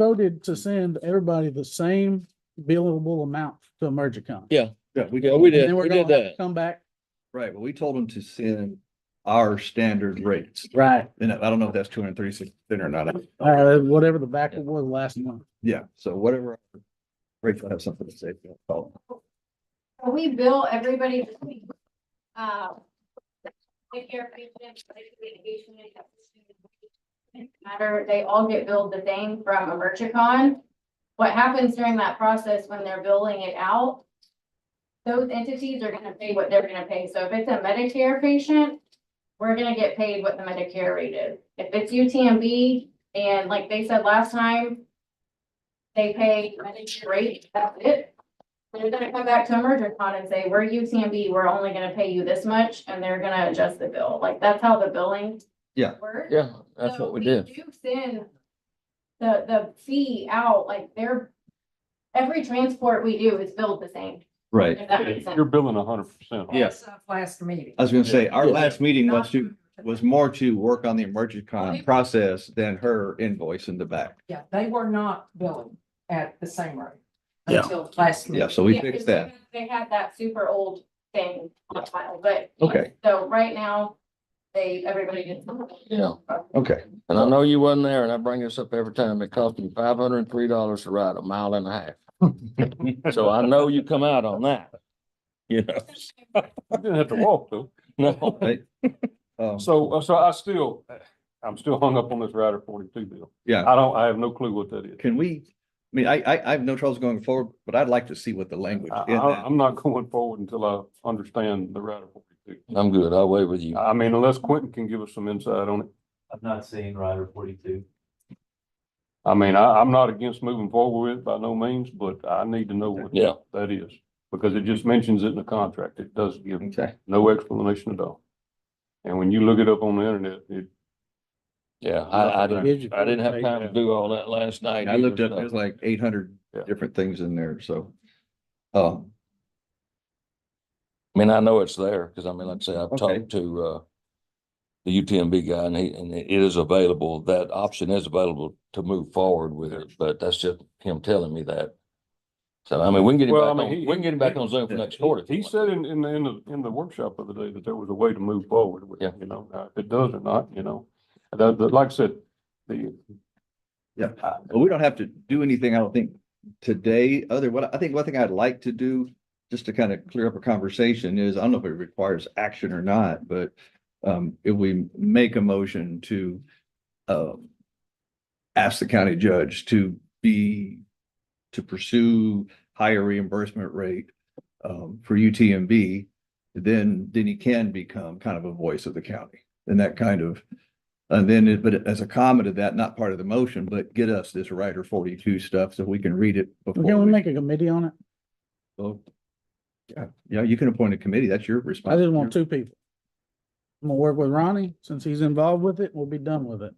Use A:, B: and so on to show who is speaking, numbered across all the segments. A: voted to send everybody the same billable amount to EmergCom.
B: Yeah,
C: Yeah, we
B: yeah,
C: got,
B: we
A: And
B: did,
A: then we're
B: we did
A: gonna have to
B: that.
A: Come back.
C: right, well, we told them to send our standard rates.
A: Right.
C: And I don't know if that's two hundred and thirty-six thin or not.
A: Uh, whatever the back was last month.
C: Yeah, so whatever. Rachel has something to say. she'll call.
D: We bill everybody this week. Uh, Take care of patients, like, litigation, and that sort of thing. Matter, they all get billed the same from Emergicon. What happens during that process when they're billing it out? Those entities are gonna pay what they're gonna pay. So if it's a Medicare patient, we're gonna get paid what the Medicare rate is. If it's UTMB, and like they said last time, they pay Medicare rate, that's it. They're gonna come back to EmergentCon and say, we're UTMB, we're only gonna pay you this much, and they're gonna adjust the bill, like, that's how the billing.
C: Yeah.
D: works.
B: Yeah, that's
D: So
B: what we did.
D: Do send the, the fee out, like, they're, every transport we do is billed the same,
C: Right,
D: if that makes sense.
E: You're billing a hundred percent.
B: Yeah.
F: That's not Last meeting.
C: I was gonna say, our
B: Yeah.
C: last meeting was
F: Not-
C: to, was more to work on the emergency con process than her invoice in the back.
F: Yeah, they were not billing at the same rate.
A: Yeah.
F: Until last
C: Yeah,
F: meeting.
C: so we
D: Yeah,
C: fixed
D: it's
C: that.
D: because They had that super old thing on file, but.
C: Okay.
D: So right now, they, everybody gets.
B: Yeah,
C: Okay,
B: and I know you wasn't there and I bring this up every time. It cost me five hundred and three dollars to ride a mile and a half. So I know you come out on that. You know,
E: I didn't have to walk though.
B: no,
C: um,
E: So, uh, so I still, I'm still hung up on this rider forty-two bill.
C: yeah,
E: I don't, I have no clue what that is.
C: can we, I mean, I, I, I have no troubles going forward, but I'd like to see what the language
E: I,
C: in
E: I,
C: that.
E: I'm not going forward until I understand the rider forty-two.
B: I'm good. I'll wait with you.
E: I mean, unless Quentin can give us some insight on it.
G: I've not seen Rider forty-two.
E: I mean, I, I'm not against moving forward with it by no means, but I need to know what
B: Yeah.
E: that is. Because it just mentions it in the contract. It does give
C: Okay,
E: no explanation at all. And when you look it up on the internet, it,
B: Yeah, I, I didn't, I didn't have time to
A: Yeah.
B: do all that last night.
C: I looked
B: either,
C: up,
B: so.
C: there's like eight hundred
E: Yeah.
C: different things in there, so. Um,
B: I mean, I know it's there, because I mean, like I say, I've
C: Okay.
B: talked to, uh, the UTMB guy and he, and it is available, that option is available to move forward with it, but that's just him telling me that. So I mean, we can get him back
E: Well, I mean,
B: on,
E: he-
B: we can get him back
E: he-
B: on Zoom for
C: he-
B: next quarter.
E: he
B: if you
E: he
B: want.
E: said in, in, the- in the, in the workshop of the day that there was a way to move forward with, it,
B: Yeah.
E: you know, Now, if it does or not, you know. That, that, like I said, the.
C: Yeah.
E: I-
C: Well, we don't have to do anything, I don't think, today, other, what, I think one thing I'd like to do, just to kind of clear up a conversation is, I don't know if it requires action or not, but um, if we make a motion to uh, ask the county judge to be, to pursue higher reimbursement rate um, for UTMB, then, then he can become kind of a voice of the county and that kind of and then, it- but as a comment of that, not part of the motion, but get us this Rider forty-two stuff so we can read it before.
A: Can we
C: we
A: make a committee on it?
C: vote. Yeah, yeah, you can appoint a committee. That's your
A: I
C: responsibility.
A: just want two people. I'm gonna work with Ronnie, since he's involved with it, we'll be done with it.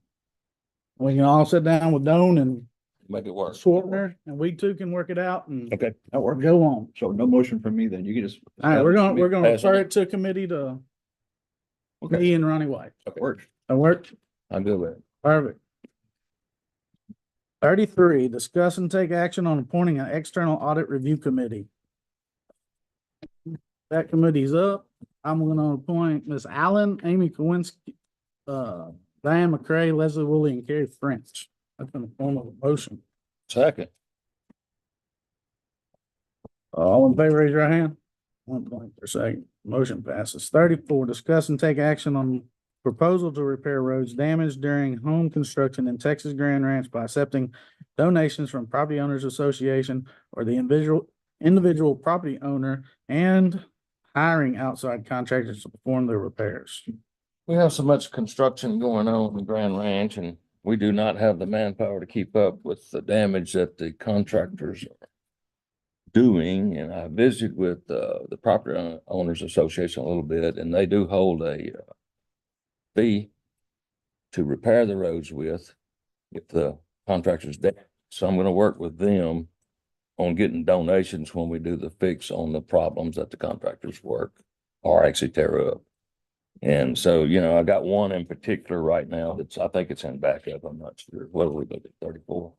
A: We can all sit down with Doan and
B: Make it work.
A: Swartner, and we two can work it out and
C: Okay, that
A: or
C: works.
A: go on.
C: So no motion from me then. You can just.
A: All right, we're gonna, we're gonna
B: Pass it.
A: refer it to a committee to
C: Okay.
A: me and Ronnie White.
C: That works.
A: That work?
B: I'm good with it.
A: Perfect. Thirty-three, discuss and take action on appointing an external audit review committee. That committee's up. I'm gonna appoint Ms. Allen, Amy Kowinski, uh, Diane McCray, Leslie Woolley, and Carrie French. That's in the form of a motion.
B: Second,
A: All in favor, raise your hand. One point per second. Motion passes. Thirty-four, discuss and take action on proposal to repair roads damaged during home construction in Texas Grand Ranch by accepting donations from Property Owners Association or the individual, individual property owner and hiring outside contractors to perform the repairs.
B: we have so much construction going on in Grand Ranch and we do not have the manpower to keep up with the damage that the contractors are doing. And I visited with, uh, the Property Own- Owners Association a little bit and they do hold a uh, fee to repair the roads with if the contractor's dead. So I'm gonna work with them on getting donations when we do the fix on the problems that the contractors work or actually tear up. And so, you know, I got one in particular right now that's, I think it's in backup. I'm not sure. What do we look at? Thirty-four?